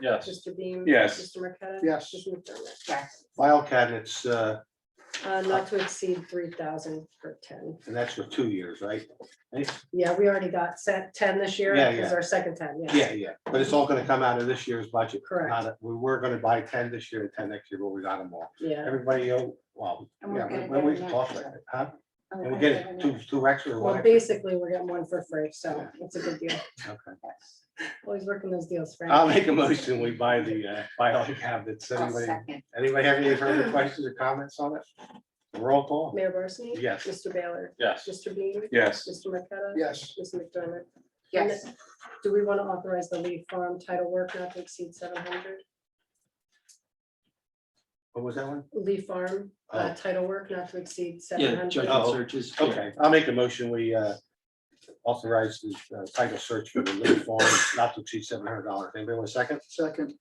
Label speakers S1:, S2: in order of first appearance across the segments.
S1: Yes.
S2: Mr. Beam?
S3: Yes.
S2: Mr. Marqueta?
S4: Yes.
S2: Mr. McDermott? Yes.
S4: file cabinets, uh,
S2: Uh, not to exceed three thousand for ten.
S4: and that's for two years, right?
S2: Yeah, we already got set ten this year,
S4: Yeah,
S2: is
S4: yeah.
S2: our second ten, yeah.
S4: Yeah, yeah, but it's all gonna come out of this year's budget.
S2: Correct.
S4: Not- We were gonna buy ten this year and ten next year, but we got them all.
S2: Yeah,
S4: Everybody, oh, well,
S5: And we're
S4: yeah,
S5: gonna
S4: when we
S5: get an
S4: talk
S5: extra.
S4: like that, huh?
S5: Oh,
S4: And we
S5: I
S4: get it
S5: don't
S4: two,
S5: know.
S4: two extra. or one
S2: well,
S4: extra.
S2: basically, we're getting one for free, so it's a good deal.
S4: Okay.
S2: Always working those deals, Frank.
S4: I'll make a motion, we buy the, uh, file cabinets.
S5: I'll
S4: Anybody,
S5: second.
S4: anybody have any further questions or comments on it? Roll call?
S2: Mayor Barsney?
S4: Yes.
S2: Mr. Baylor?
S1: Yes.
S2: Mr. Beam?
S3: yes,
S2: Mr. Marqueta?
S4: Yes.
S2: Mr. McDermott?
S5: Yes,
S2: Do we want to authorize the lead farm title work not to exceed seven hundred?
S4: What was that one?
S2: Lee Farm, uh,
S4: Oh.
S2: title work not to exceed seven
S6: Yeah,
S2: hundred.
S4: Oh,
S6: judgment searches. yeah.
S4: Okay, I'll make a motion, we uh, authorize the uh, title search for the Lily Farm, not to exceed seven hundred dollars. Anybody want a second? Second.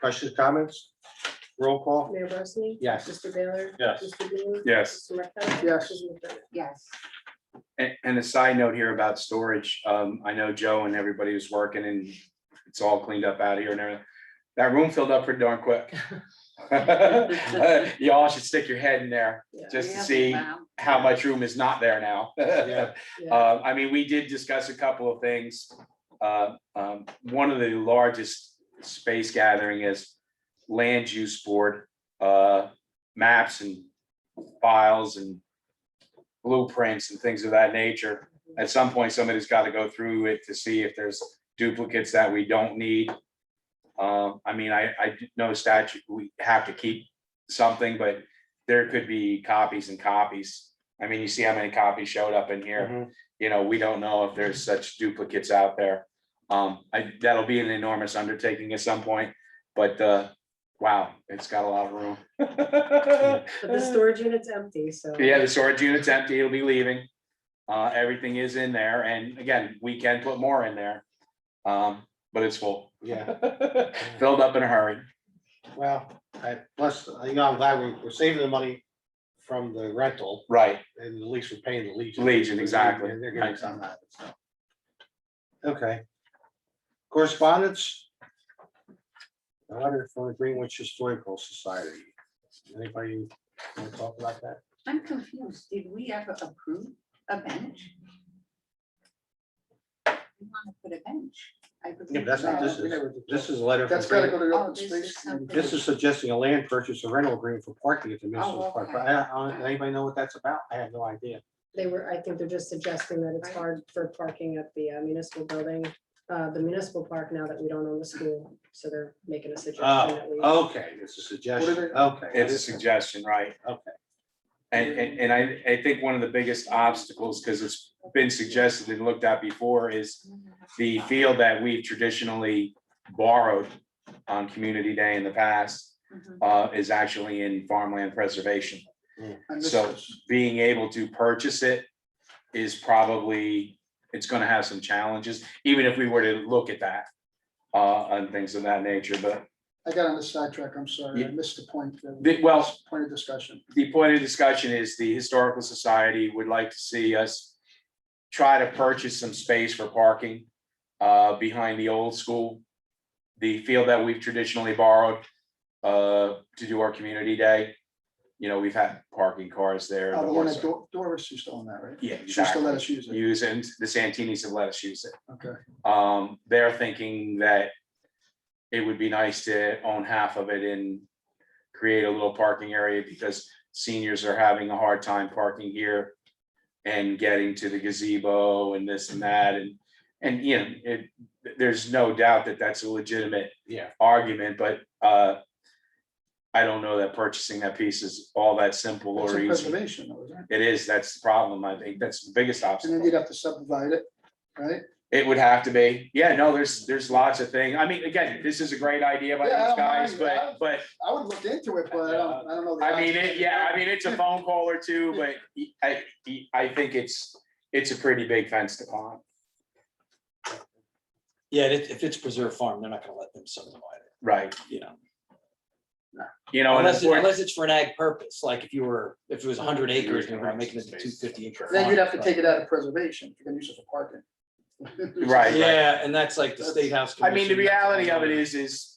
S4: Questions, comments? Roll call?
S2: Mayor Barsney?
S4: Yes.
S2: Mr. Baylor?
S1: Yes.
S2: Mr. Bean?
S3: yes.
S2: Mr. Marqueta?
S4: Yes.
S2: Mrs. McDermott?
S5: yes.
S3: And, and a side note here about storage, um, I know Joe and everybody was working and it's all cleaned up out here and everything. That room filled up pretty darn quick. Uh, Y'all should stick your head in there
S2: Yeah.
S3: just to
S5: Really?
S3: see
S5: Wow.
S3: how much room is not there now.
S4: Yeah.
S2: Yeah.
S3: Uh, I mean, we did discuss a couple of things. Uh, um, one of the largest space gathering is land use board, uh, maps and files and blueprints and things of that nature. At some point, somebody's got to go through it to see if there's duplicates that we don't need. Um, I mean, I, I do know statute, we have to keep something, but there could be copies and copies. I mean, you see how many copies showed up in here
S4: Mhm.
S3: you know, we don't know if there's such duplicates out there. Um, I, that'll be an enormous undertaking at some point, but, uh, wow, it's got a lot of room.
S2: But the storage unit's empty, so.
S3: Yeah, the storage unit's empty, it'll be leaving. Uh, everything is in there, and again, we can put more in there. Um, but it's full,
S4: Yeah,
S3: filled up in a hurry.
S4: well, I, plus, you know, I'm glad we- we're saving the money from the rental
S3: Right,
S4: and at least we're paying the Legion.
S3: Legion, exactly.
S4: And They're getting some out of it, so. Okay. Correspondence? A letter from the Greenwich Historical Society. Anybody want to talk about that?
S5: I'm confused. Did we ever approve a bench? We want to put a bench. I
S4: Yeah,
S5: believe
S4: but that's not,
S5: that-
S4: this is, this is a letter. from
S7: That's gotta go to the
S5: Oh,
S7: open
S5: this
S7: space.
S5: is something-
S4: Greenwich. This is suggesting a land purchase or rental agreement for parking at the municipal
S5: Oh,
S4: park.
S5: okay.
S4: But I don't- Anybody know what that's about? I have no idea.
S2: They were, I think they're just suggesting that it's
S5: Right.
S2: hard for parking at the uh, municipal building, uh, the municipal park now that we don't own the school. So they're making a suggestion that we.
S4: Oh, okay, it's a suggestion. Okay.
S3: it's a suggestion, right?
S4: Okay.
S3: And, and, and I, I think one of the biggest obstacles, because it's been suggested and looked at before, is the field that we've traditionally borrowed on Community Day in the past
S5: Mhm.
S3: uh, is actually in farmland preservation.
S7: And this
S3: So
S7: is-
S3: being able to purchase it is probably, it's gonna have some challenges, even if we were to look at that uh, and things of that nature, but
S7: I got on the sidetrack, I'm sorry, I missed the point. that-
S3: The- well-
S7: Point of discussion.
S3: the point of discussion is the Historical Society would like to see us try to purchase some space for parking uh, behind the old school, the field that we've traditionally borrowed uh, to do our community day. You know, we've had parking cars there.
S7: Uh,
S3: the
S7: The one
S3: horse-
S7: that Dor- Doris used to own that, right?
S3: Yeah,
S7: She used to let
S3: exactly.
S7: us use it,
S3: Use and the Santinis have let us use it.
S7: okay.
S3: Um, they're thinking that it would be nice to own half of it and create a little parking area because seniors are having a hard time parking here and getting to the gazebo and this and that and, and you know, it, there's no doubt that that's a legitimate
S4: Yeah.
S3: argument, but, uh, I don't know that purchasing that piece is all that simple
S7: It's
S3: or
S7: a
S3: easy.
S7: preservation, though, isn't
S3: It
S7: it?
S3: is, that's the problem. I think that's the biggest
S7: And
S3: obstacle.
S7: then you'd have to subdivide it, right?
S3: It would have to be. Yeah, no, there's, there's lots of things. I mean, again, this is a great idea by
S7: Yeah, I
S3: these
S7: don't
S3: guys,
S7: mind that.
S3: but, but,
S7: I would look into it, but I don't, I don't know. the
S3: I mean, it,
S7: odds.
S3: yeah, I mean, it's a phone call or two, but I, I think it's, it's a pretty big fence to climb.
S6: Yeah, and if, if it's preserved farm, they're not gonna let them subdivide it,
S3: Right,
S6: you know,
S3: you know, and
S6: unless,
S3: that's
S6: it-
S3: where-
S6: unless it's for an ag purpose, like if you were, if it was hundred acres, and we're making it a two fifty acre.
S7: Then you'd
S6: farm,
S7: have to
S6: but-
S7: take it out of preservation, if you're gonna use it for parking.
S3: Right.
S6: Yeah, and that's like the state house.
S3: I mean, the
S6: Commission, that's a
S3: reality of
S6: whole
S3: it
S6: other-
S3: is, is